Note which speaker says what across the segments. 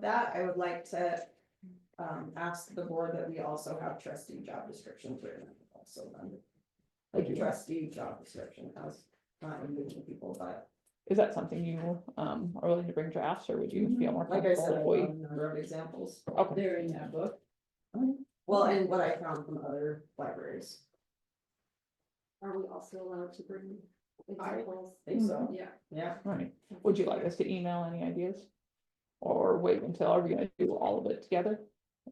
Speaker 1: that, I would like to um ask the board that we also have trustee job descriptions written also. then. Like trustee job description, how's not individual people, but
Speaker 2: Is that something you um are willing to bring drafts or would you feel more
Speaker 1: like I said,
Speaker 2: comfortable? if
Speaker 1: I've
Speaker 2: we-
Speaker 1: got a number of examples.
Speaker 2: Okay,
Speaker 3: They're in that book.
Speaker 1: Well, and what I found from other libraries,
Speaker 4: Are we also allowed to bring
Speaker 1: I-
Speaker 4: examples?
Speaker 1: I think so,
Speaker 4: Yeah.
Speaker 1: yeah.
Speaker 2: all right. Would you like us to email any ideas? Or wait until, are we gonna do all of it together?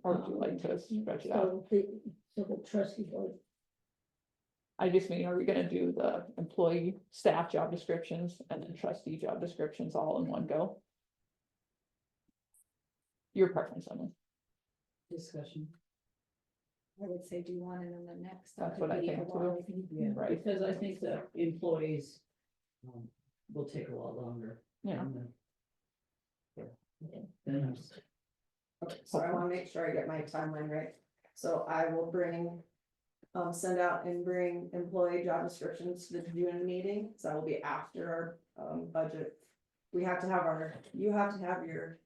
Speaker 2: Or would you like to stretch it out?
Speaker 3: So the, so the trustee board,
Speaker 2: I just mean, are we gonna do the employee staff job descriptions and then trustee job descriptions all in one go? Your preference, Emily.
Speaker 3: discussion.
Speaker 4: I would say do one and then the next. That
Speaker 2: That's
Speaker 4: could
Speaker 2: what I
Speaker 4: be a
Speaker 2: think
Speaker 4: lot.
Speaker 2: too. Right.
Speaker 3: Because I think the employees um, will take a lot longer. Um,
Speaker 2: Yeah.
Speaker 3: than the- Than us.
Speaker 1: Okay, so I wanna make sure I get my timeline right, so I will bring. Um, send out and bring employee job descriptions to the June meeting, so that will be after our um budget. We have to have our, you have to have your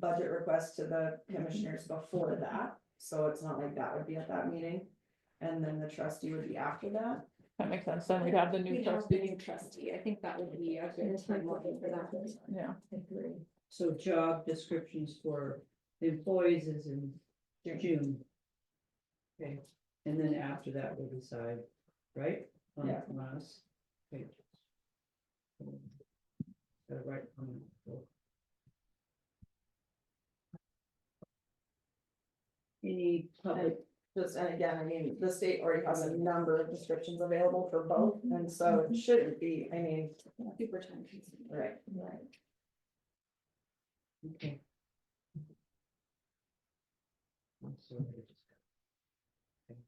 Speaker 1: budget request to the commissioners before that, so it's not like that would be at that meeting. And then the trustee would be after that,
Speaker 2: That makes sense. Then we'd have the
Speaker 4: We
Speaker 2: new
Speaker 4: have the new
Speaker 2: trustee.
Speaker 4: trustee. I think that would be a good timeline for that.
Speaker 2: Yeah,
Speaker 3: So job descriptions for employees is in June. Okay, and then after that, we'll decide, right? on-
Speaker 1: Yeah.
Speaker 3: on us. Okay. Uh, Right. on the- Any public,
Speaker 1: just, and again, I mean, the state already has a number of descriptions available for both, and so it shouldn't be, I mean,
Speaker 4: Super time consuming.
Speaker 1: right.
Speaker 4: Right.
Speaker 3: okay. I'm sorry, I just got- okay.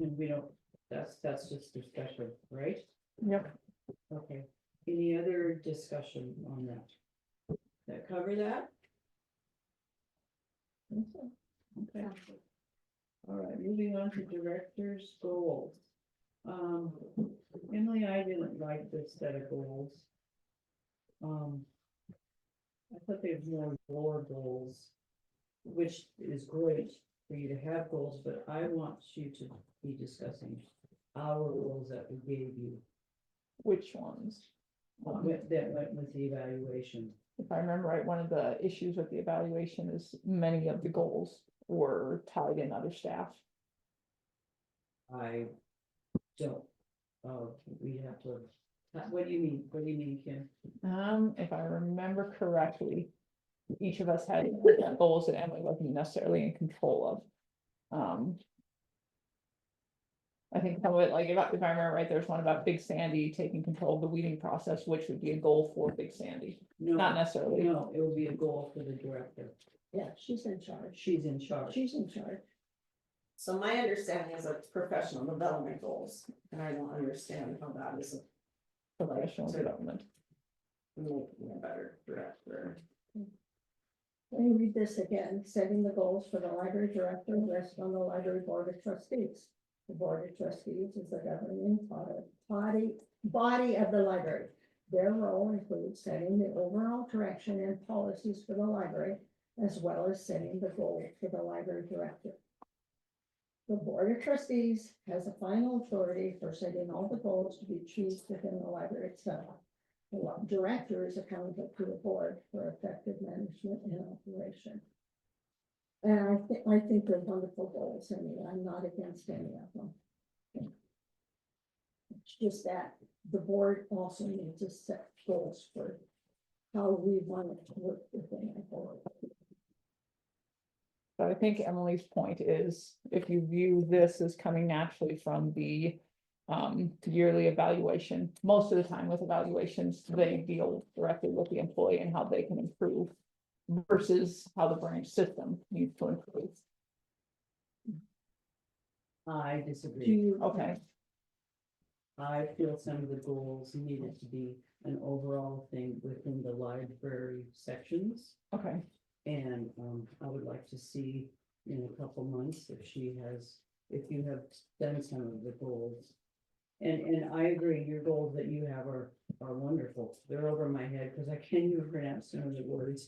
Speaker 3: And we don't, that's, that's just discussion, right?
Speaker 2: yep.
Speaker 3: Okay, any other discussion on that? That cover that? Okay,
Speaker 4: Sounds good.
Speaker 3: all right, moving on to director's goals. Um, Emily, I didn't like the set of goals. Um. I thought they were more lower goals, which is great for you to have goals, but I want you to be discussing our goals that we gave you.
Speaker 2: Which ones?
Speaker 3: What went- that went with the evaluation.
Speaker 2: If I remember right, one of the issues with the evaluation is many of the goals were tied in other staff.
Speaker 3: I don't, oh, we have to, uh, what do you mean, what do you mean, Kim?
Speaker 2: Um, if I remember correctly, each of us had goals that Emily wasn't necessarily in control of. Um. I think some of it, like, if I if I remember right, there's one about Big Sandy taking control of the weeding process, which would be a goal for Big Sandy, not
Speaker 3: No,
Speaker 2: necessarily.
Speaker 3: no, it will be a goal for the director.
Speaker 5: Yeah, she's in charge.
Speaker 3: She's in charge.
Speaker 5: She's in charge.
Speaker 1: So my understanding is that it's professional development goals, and I don't understand how that is
Speaker 2: Professional development.
Speaker 1: making a better director.
Speaker 5: Let me read this again, setting the goals for the library director rest on the library board of trustees. The board of trustees is the governing body- body, body of the library. Their role includes setting the overall direction and policies for the library, as well as setting the goals for the library director. The board of trustees has the final authority for setting all the goals to be achieved within the library itself. The lo- director is accountable to the board for effective management and operation. And I think, I think they're wonderful goals, I mean, I'm not against any of them. It's just that the board also needs to set goals for how we want it to work within our board.
Speaker 2: But I think Emily's point is, if you view this as coming naturally from the um yearly evaluation, most of the time with evaluations, they deal directly with the employee and how they can improve versus how the branch system needs to improve.
Speaker 3: I
Speaker 5: Do
Speaker 3: disagree.
Speaker 5: you?
Speaker 2: Okay,
Speaker 3: I feel some of the goals needed to be an overall thing within the library sections.
Speaker 2: okay,
Speaker 3: And um, I would like to see in a couple months if she has, if you have done some of the goals. And, and I agree, your goals that you have are, are wonderful. They're over my head because I can't even pronounce some of the words.